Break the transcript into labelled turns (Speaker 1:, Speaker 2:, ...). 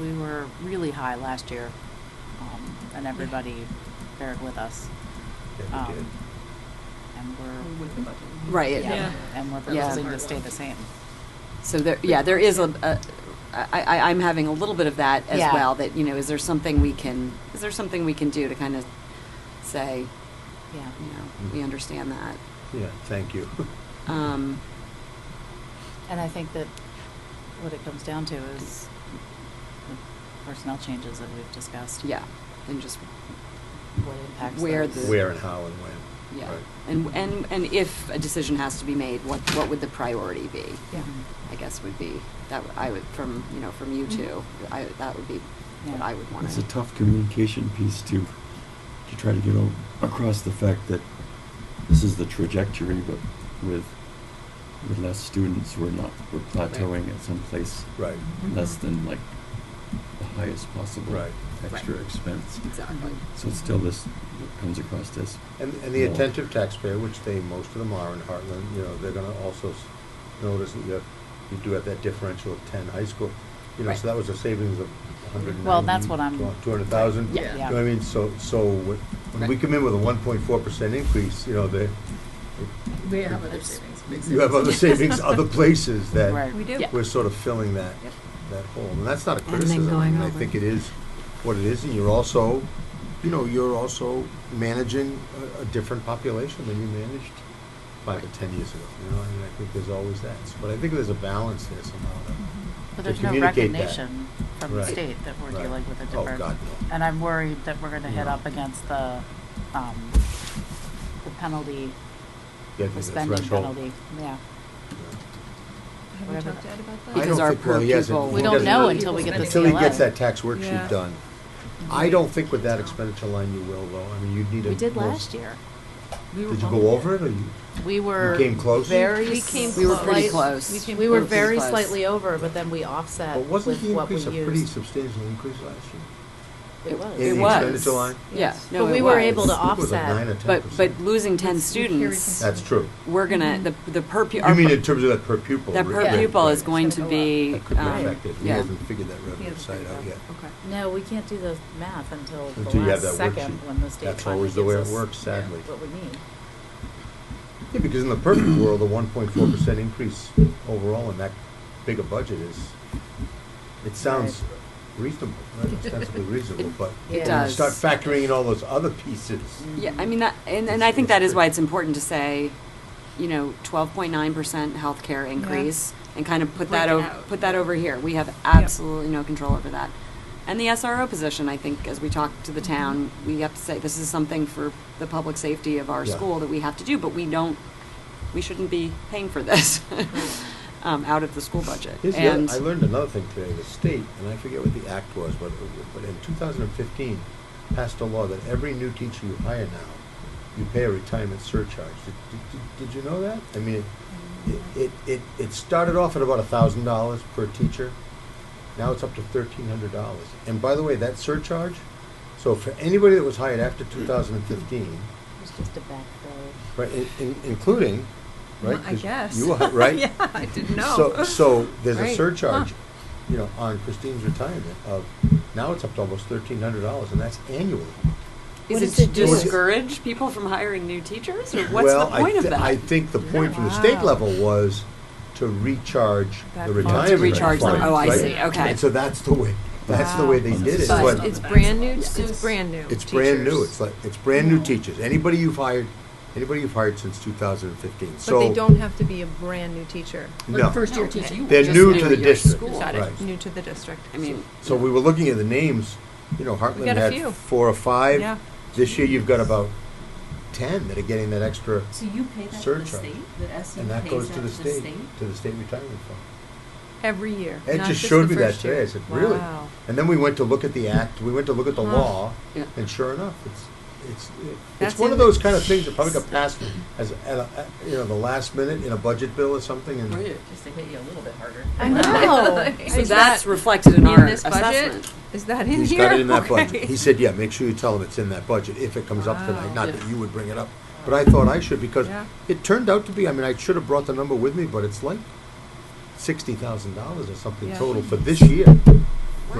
Speaker 1: we were really high last year, um, and everybody fared with us.
Speaker 2: Yeah, we did.
Speaker 1: Um, And we're,
Speaker 3: With the budget.
Speaker 4: Right, it-
Speaker 1: yeah,
Speaker 3: Yeah.
Speaker 1: and we're
Speaker 4: Yeah.
Speaker 1: proposing to stay the same.
Speaker 4: So there, yeah, there is a, a I, I, I'm having a little bit of that as
Speaker 1: Yeah.
Speaker 4: well, that, you know, is there something we can, is there something we can do to kind of say,
Speaker 1: Yeah.
Speaker 4: you know,
Speaker 5: Mm-hmm.
Speaker 4: we understand that?
Speaker 2: Yeah, thank you.
Speaker 4: Um,
Speaker 1: And I think that what it comes down to is the personnel changes that we've discussed.
Speaker 4: yeah, and just,
Speaker 1: What impacts
Speaker 4: Where
Speaker 1: those.
Speaker 4: the-
Speaker 2: Where and how and when.
Speaker 4: yeah.
Speaker 2: Right.
Speaker 4: And, and, and if a decision has to be made, what, what would the priority be?
Speaker 3: Yeah.
Speaker 4: I guess would be, that w- I would, from, you know, from you two, I, that would be what
Speaker 1: Mm-hmm. Yeah.
Speaker 4: I would want
Speaker 5: It's
Speaker 4: to.
Speaker 5: a tough communication piece to, to try to get o- across the fact that this is the trajectory, but with, with less students, we're not, we're plateauing at some place
Speaker 2: Right,
Speaker 5: less than like the highest possible
Speaker 2: Right.
Speaker 5: extra expense.
Speaker 4: Exactly.
Speaker 1: Mm-hmm.
Speaker 5: So it's still this, what comes across this.
Speaker 2: and, and the
Speaker 5: more-
Speaker 2: attentive taxpayer, which they, most of them are in Heartland, you know, they're gonna also s- notice that you have, you do have that differential of ten high school. You know,
Speaker 4: Right.
Speaker 2: so that was a savings of a hundred and ninety.
Speaker 1: Well, that's what I'm-
Speaker 2: Two hundred thousand.
Speaker 3: Yeah.
Speaker 2: You know what I mean, so, so when when we
Speaker 4: Right.
Speaker 2: come in with a one point four percent increase, you know, they,
Speaker 3: They have other savings. big
Speaker 2: you have other
Speaker 3: savings.
Speaker 2: savings, other places that
Speaker 1: Right.
Speaker 3: We do.
Speaker 1: Yeah.
Speaker 2: we're sort of filling that,
Speaker 4: Yep.
Speaker 2: that hole. And that's not a
Speaker 4: then
Speaker 2: criticism. I
Speaker 4: going
Speaker 2: mean, I
Speaker 4: over.
Speaker 2: think it is what it is, and you're also, you know, you're also managing a, a different population than you managed five or ten years ago, you know, and I think there's always that. But I think there's a balance there somehow. that-
Speaker 1: But
Speaker 2: to
Speaker 1: there's no
Speaker 2: communicate that.
Speaker 1: recognition from the
Speaker 2: Right.
Speaker 1: state that we're
Speaker 2: Right.
Speaker 1: dealing with a
Speaker 2: Oh,
Speaker 1: different.
Speaker 2: God, no.
Speaker 1: And I'm worried that we're gonna hit
Speaker 2: No.
Speaker 1: up against the, um, the penalty,
Speaker 2: Yeah, I
Speaker 1: the
Speaker 2: think
Speaker 1: spending
Speaker 2: threshold,
Speaker 1: penalty, yeah.
Speaker 2: yeah.
Speaker 3: Have we
Speaker 1: Whatever
Speaker 3: talked to Ed about that?
Speaker 2: I
Speaker 4: Because
Speaker 2: don't
Speaker 4: our
Speaker 2: think- well,
Speaker 4: per
Speaker 2: he hasn't-
Speaker 4: pupil-
Speaker 2: he
Speaker 1: We don't
Speaker 2: doesn't
Speaker 1: know
Speaker 2: really-
Speaker 1: until we get the
Speaker 2: Until he gets
Speaker 1: CLA.
Speaker 2: that tax worksheet
Speaker 3: Yeah.
Speaker 2: done. I don't think with that expenditure line you will though. I mean, you'd need a.
Speaker 1: We did
Speaker 2: more-
Speaker 1: last year.
Speaker 3: We were
Speaker 2: Did you
Speaker 3: bumping
Speaker 2: go over it or you?
Speaker 1: We were
Speaker 2: came close?
Speaker 1: very.
Speaker 3: We came
Speaker 1: s-
Speaker 4: We were pretty
Speaker 1: slight-
Speaker 4: close.
Speaker 3: We came
Speaker 1: We were
Speaker 3: close.
Speaker 1: very
Speaker 4: Pretty close.
Speaker 1: slightly over, but then we offset
Speaker 2: But
Speaker 1: with what we
Speaker 2: wasn't
Speaker 1: used.
Speaker 2: the increase a pretty substantial increase last year?
Speaker 1: It
Speaker 2: in
Speaker 4: It
Speaker 2: the
Speaker 1: was.
Speaker 2: expenditure
Speaker 4: was.
Speaker 2: line?
Speaker 4: Yeah,
Speaker 3: Yes.
Speaker 4: no,
Speaker 1: But
Speaker 4: it
Speaker 1: we were
Speaker 4: was.
Speaker 1: able to
Speaker 2: I think it was like
Speaker 1: offset.
Speaker 2: nine or 10%.
Speaker 4: But, but losing ten students,
Speaker 2: That's true.
Speaker 4: we're gonna, the, the per pu-
Speaker 2: You
Speaker 4: our
Speaker 2: mean
Speaker 4: per-
Speaker 2: in terms of that per pupil?
Speaker 4: That
Speaker 2: rate,
Speaker 4: per
Speaker 2: right,
Speaker 4: pupil
Speaker 2: right.
Speaker 4: is going to be,
Speaker 2: That could be
Speaker 4: um,
Speaker 2: affected. We
Speaker 4: yeah.
Speaker 2: haven't figured that
Speaker 3: Yeah,
Speaker 2: revenue
Speaker 3: it's
Speaker 2: side out
Speaker 3: like
Speaker 2: yet.
Speaker 3: that. Okay.
Speaker 1: No, we can't do the math until the
Speaker 2: Until you
Speaker 1: last
Speaker 2: have that
Speaker 1: second
Speaker 2: worksheet.
Speaker 1: when the state
Speaker 2: That's
Speaker 1: finally gives
Speaker 2: always the way it
Speaker 1: us
Speaker 2: works, sadly.
Speaker 1: what we need.
Speaker 2: Yeah, because in the perfect world, a one point four percent increase overall in that big a budget is, it sounds reasonable, right? ostensibly reasonable, but
Speaker 1: it
Speaker 2: when you
Speaker 1: does.
Speaker 2: start factoring in all those other pieces.
Speaker 4: yeah, I mean, that, and, and I think that is why it's important to say, you know, twelve point nine percent healthcare increase, and kind of put that
Speaker 3: Break it
Speaker 4: over,
Speaker 3: out.
Speaker 4: put that over here, we have absolutely no control over that. And the SRO position, I think, as we talk to
Speaker 3: Mm-hmm.
Speaker 4: the town, we have to say, this is something for the public safety of our
Speaker 2: Yeah.
Speaker 4: school that we have to do, but we don't, we shouldn't be paying for this, um, out of the school budget,
Speaker 2: Here's the
Speaker 4: and,
Speaker 2: other, I learned another thing today. The state, and I forget what the act was, but, but in 2015, passed a law that every new teacher you hire now, you pay a retirement surcharge. Did, did, did you know that? I mean, it, it, it, it started off at about $1,000 per teacher. Now it's up to $1,300. And by the way, that surcharge, so for anybody that was hired after 2015,
Speaker 1: It's just a backfill.
Speaker 2: right, in, in, including, right?
Speaker 3: Well, I
Speaker 2: 'cause
Speaker 3: guess.
Speaker 2: You are, right?
Speaker 3: Yeah, I didn't
Speaker 2: So,
Speaker 3: know.
Speaker 2: so there's a
Speaker 3: Right.
Speaker 2: surcharge,
Speaker 3: Huh.
Speaker 2: you know, on Christine's retirement of, now it's up to almost thirteen hundred dollars, and that's annually.
Speaker 1: What
Speaker 4: is
Speaker 1: is
Speaker 4: it to
Speaker 1: it doing?
Speaker 4: discourage people from hiring new teachers, or what's
Speaker 2: Well,
Speaker 4: the
Speaker 2: I
Speaker 4: point of
Speaker 2: thi-
Speaker 4: that?
Speaker 2: I think the point from the state
Speaker 1: Wow.
Speaker 2: level was to recharge
Speaker 3: That
Speaker 2: the
Speaker 3: fund.
Speaker 2: retirement.
Speaker 3: To recharge
Speaker 2: fund,
Speaker 3: them. Oh, I
Speaker 2: right?
Speaker 3: see.
Speaker 4: Okay.
Speaker 2: And so that's the way, that's the way they
Speaker 5: Wow.
Speaker 2: did it.
Speaker 5: But
Speaker 2: But
Speaker 3: It's brand new, it's brand new.
Speaker 2: It's brand new,
Speaker 3: teachers.
Speaker 2: it's like, it's brand new teachers, anybody you've hired, anybody you've hired since two thousand and fifteen, so.
Speaker 3: But they don't have to be a brand new teacher,
Speaker 2: No.
Speaker 6: first-year
Speaker 4: Okay.
Speaker 6: teacher, you
Speaker 2: They're
Speaker 6: just
Speaker 2: new
Speaker 6: knew
Speaker 2: to the
Speaker 6: your
Speaker 2: district,
Speaker 6: school.
Speaker 2: right.
Speaker 3: new to the district.
Speaker 4: I mean,
Speaker 2: So we were looking at the names, you know, Heartland
Speaker 3: got a
Speaker 2: had
Speaker 3: few.
Speaker 2: four or five.
Speaker 3: Yeah.
Speaker 2: This year, you've got about ten that are getting that extra,
Speaker 6: So you pay that to the
Speaker 2: Surcharge.
Speaker 6: state, that SU
Speaker 2: and that
Speaker 6: pays
Speaker 2: goes
Speaker 6: that
Speaker 2: to the state, to the state retirement fund.
Speaker 3: Every year,
Speaker 2: Ed
Speaker 3: not
Speaker 2: just
Speaker 3: just
Speaker 2: showed
Speaker 3: the
Speaker 2: me that
Speaker 3: first year.
Speaker 2: today. I said, really?
Speaker 3: Wow.
Speaker 2: And then we went to look at the act. We went to look at the
Speaker 3: Huh.
Speaker 2: law,
Speaker 4: Yeah.
Speaker 2: and sure enough, it's it's it's
Speaker 3: That's
Speaker 2: one
Speaker 3: in
Speaker 2: of
Speaker 3: the-
Speaker 2: those kind of things that probably got passed as at a, at, you know the last minute in a budget bill or something. And
Speaker 6: Just to hit you a little bit harder.
Speaker 1: I know.
Speaker 4: so
Speaker 3: Is
Speaker 4: that's
Speaker 3: that
Speaker 4: reflected in
Speaker 3: in
Speaker 4: our
Speaker 3: this budget?
Speaker 4: assessment.
Speaker 3: Is that in here?
Speaker 2: he's got it in that budget.
Speaker 3: Okay.
Speaker 2: He said, yeah, make sure you tell him it's in that budget if it comes up
Speaker 3: Wow.
Speaker 2: tonight. Not that
Speaker 6: Yeah.
Speaker 2: you would bring it up, but I thought I should because
Speaker 3: Yeah.
Speaker 2: it turned out to be. I mean, I should have brought the number with me, but it's like sixty thousand dollars or something
Speaker 3: Yeah.
Speaker 2: total for this year.